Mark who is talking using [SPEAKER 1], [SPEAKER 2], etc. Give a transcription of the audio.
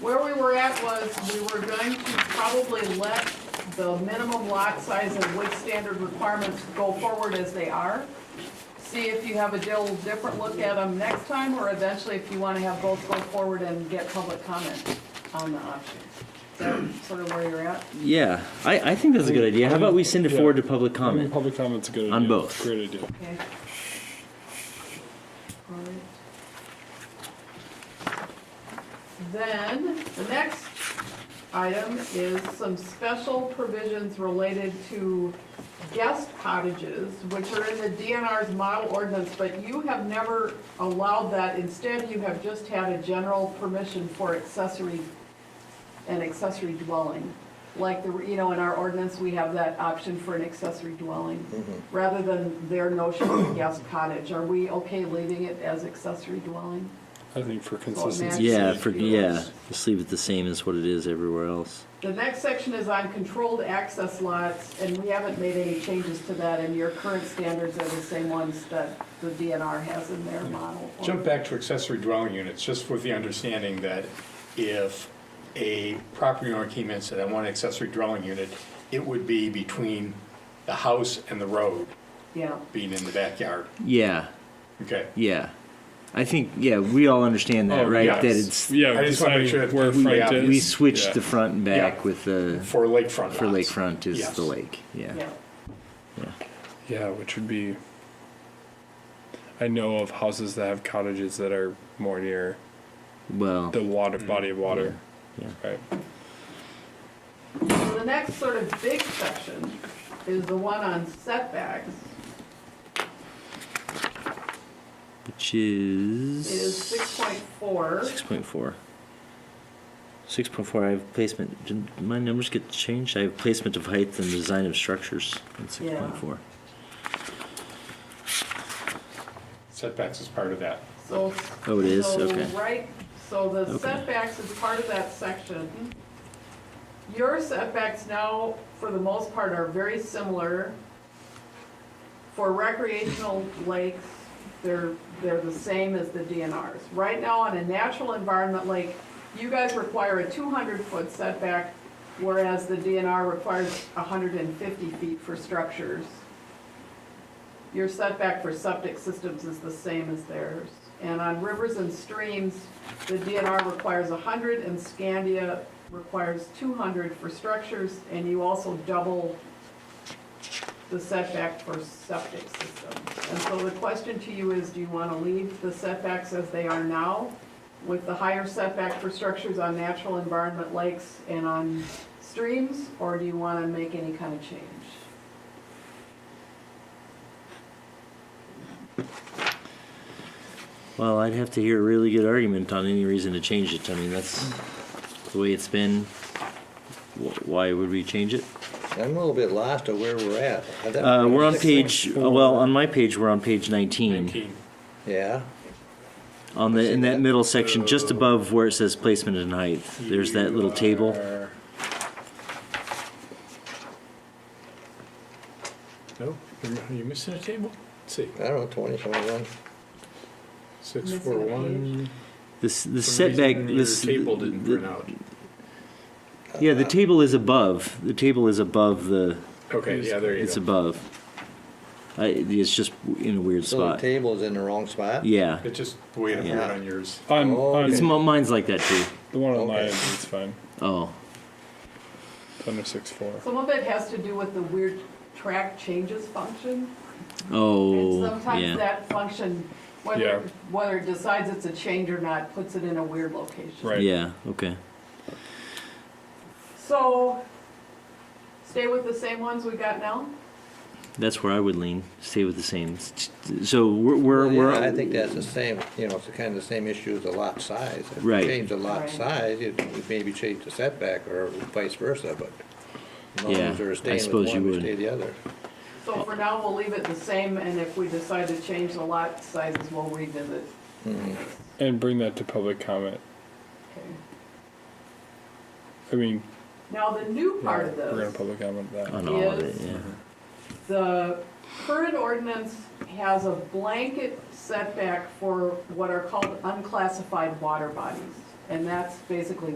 [SPEAKER 1] Where we were at was, we were going to probably let the minimum lot size and wood standard requirements go forward as they are. See if you have a little different look at them next time, or eventually if you wanna have both go forward and get public comment on the options. Is that sort of where you're at?
[SPEAKER 2] Yeah, I, I think that's a good idea. How about we send it forward to public
[SPEAKER 3] I mean,
[SPEAKER 2] comment?
[SPEAKER 3] public comment's a good idea.
[SPEAKER 2] On both.
[SPEAKER 3] Great idea.
[SPEAKER 1] Okay. Alright. Then, the next item is some special provisions related to guest cottages, which are in the DNR's model ordinance, but you have never allowed that. Instead, you have just had a general permission for accessory, an accessory dwelling. Like, the you know, in our ordinance, we have that option for an accessory dwelling rather than their notion of a guest cottage, are we okay leaving it as accessory dwelling?
[SPEAKER 3] I think for
[SPEAKER 1] Max.
[SPEAKER 3] consistency.
[SPEAKER 2] Yeah, for, yeah, just leave it the same as what it is everywhere else.
[SPEAKER 1] The next section is on controlled access lots, and we haven't made any changes to that, and your current standards are the same ones that the DNR has in their model.
[SPEAKER 4] Jump back to accessory dwelling units, just with the understanding that if a property owner came in and said, I want an accessory dwelling unit, it would be between the house and the road,
[SPEAKER 1] Yeah,
[SPEAKER 4] being in the backyard,
[SPEAKER 2] Yeah,
[SPEAKER 4] okay?
[SPEAKER 2] yeah. I think, yeah, we all understand that,
[SPEAKER 3] Oh,
[SPEAKER 2] right? That
[SPEAKER 4] yes.
[SPEAKER 2] it's,
[SPEAKER 3] Yeah,
[SPEAKER 4] I just wanna make sure that
[SPEAKER 3] deciding where
[SPEAKER 4] we-
[SPEAKER 3] front
[SPEAKER 4] yeah,
[SPEAKER 3] is.
[SPEAKER 2] we switched the
[SPEAKER 3] Yeah.
[SPEAKER 2] front and back
[SPEAKER 4] Yeah.
[SPEAKER 2] with the,
[SPEAKER 4] For lakefront
[SPEAKER 2] for
[SPEAKER 4] lots.
[SPEAKER 2] lakefront is
[SPEAKER 4] Yes.
[SPEAKER 2] the lake, yeah.
[SPEAKER 1] yeah.
[SPEAKER 3] Yeah, which would be. I know of houses that have cottages that are more near
[SPEAKER 2] Well,
[SPEAKER 3] the water,
[SPEAKER 4] Mm.
[SPEAKER 3] body of water.
[SPEAKER 2] Yeah.
[SPEAKER 3] Right.
[SPEAKER 1] So the next sort of big section is the one on setbacks,
[SPEAKER 2] which is.
[SPEAKER 1] is six point four.
[SPEAKER 2] Six point four. Six point four. I have placement. Did my numbers get changed? I have placement of height and design of structures in six point four.
[SPEAKER 4] Setbacks is part of that.
[SPEAKER 1] So.
[SPEAKER 2] Oh, it is?
[SPEAKER 1] so
[SPEAKER 2] Okay.
[SPEAKER 1] Right, so the
[SPEAKER 2] Okay.
[SPEAKER 1] setbacks is part of that section. Your setbacks now, for the most part, are very similar. For recreational lakes, they're, they're the same as the DNRs. Right now, on a natural environment lake, you guys require a two hundred foot setback, whereas the DNR requires hundred and fifty feet for structures. Your setback for septic systems is the same as theirs. And on rivers and streams, the DNR requires 100 and Scandia requires 200 for structures, and you also double the setback for septic systems. And so the question to you is, do you want to leave the setbacks as they are now with the higher setback for structures on natural environment lakes and on streams? Or do you want to make any kind of change?
[SPEAKER 2] Well, I'd have to hear a really good argument on any reason to change it. I mean, that's the way it's been. Wh- Why would we change it?
[SPEAKER 5] I'm a little bit lost of where we're at. I thought-
[SPEAKER 2] Uh, we're on
[SPEAKER 5] Six
[SPEAKER 2] page.
[SPEAKER 5] point four.
[SPEAKER 2] Well, on my page, we're on page nineteen.
[SPEAKER 4] Nineteen.
[SPEAKER 5] Yeah,
[SPEAKER 2] On the in that
[SPEAKER 5] that.
[SPEAKER 2] middle section, just above where it says placement and height, there's that little table.
[SPEAKER 4] Are- No, you're- are you missing a table? Let's see,
[SPEAKER 5] I don't know, twenty, twenty-one.
[SPEAKER 4] six,
[SPEAKER 1] Missing
[SPEAKER 4] four,
[SPEAKER 1] a page.
[SPEAKER 4] one.
[SPEAKER 2] This the
[SPEAKER 4] For some reason,
[SPEAKER 2] setback.
[SPEAKER 4] your
[SPEAKER 2] This
[SPEAKER 4] Table didn't
[SPEAKER 2] the-
[SPEAKER 4] print out.
[SPEAKER 2] Yeah, the table is above. The table is above the.
[SPEAKER 4] Okay, yeah, there you
[SPEAKER 2] It's
[SPEAKER 4] go.
[SPEAKER 2] above. I, it's just in a weird
[SPEAKER 5] So the
[SPEAKER 2] spot.
[SPEAKER 5] table's in the wrong spot?
[SPEAKER 2] Yeah,
[SPEAKER 4] It's just the way it appeared
[SPEAKER 5] Yeah.
[SPEAKER 4] on yours.
[SPEAKER 3] On,
[SPEAKER 5] Oh,
[SPEAKER 3] on
[SPEAKER 2] it's mo- mine's like that too.
[SPEAKER 3] the one on my
[SPEAKER 5] Okay.
[SPEAKER 3] end, it's fine.
[SPEAKER 2] Oh,
[SPEAKER 3] It's under six four.
[SPEAKER 1] Some of it has to do with the weird track changes function. And
[SPEAKER 2] oh,
[SPEAKER 1] sometimes
[SPEAKER 2] yeah.
[SPEAKER 1] that function,
[SPEAKER 3] Yeah.
[SPEAKER 1] whether, whether it decides it's a change or not, puts it in a weird location.
[SPEAKER 3] Right.
[SPEAKER 2] Yeah. Okay.
[SPEAKER 1] So, stay with the same ones we got now?
[SPEAKER 2] That's where I would lean. Stay with the same. So we're we're,
[SPEAKER 5] Yeah,
[SPEAKER 2] we're
[SPEAKER 5] I think that's the same, you know, it's kind of the same issue as the lot size. If you
[SPEAKER 2] Right.
[SPEAKER 5] change the lot
[SPEAKER 1] Right.
[SPEAKER 5] size, you maybe change the setback or vice versa, but as long
[SPEAKER 2] Yeah,
[SPEAKER 5] as they're
[SPEAKER 2] I
[SPEAKER 5] staying with
[SPEAKER 2] suppose you
[SPEAKER 5] one, we
[SPEAKER 2] would.
[SPEAKER 5] stay the other.
[SPEAKER 1] So for now, we'll leave it the same, and if we decide to change the lot sizes, we'll revisit.
[SPEAKER 3] And bring that to public comment.
[SPEAKER 1] Okay.
[SPEAKER 3] I mean,
[SPEAKER 1] Now, the new part of
[SPEAKER 3] we're gonna
[SPEAKER 1] this,
[SPEAKER 3] public comment that.
[SPEAKER 2] on all of it.
[SPEAKER 1] is-
[SPEAKER 2] Yeah.
[SPEAKER 1] the current ordinance has a blanket setback for what are called unclassified water bodies. And that's basically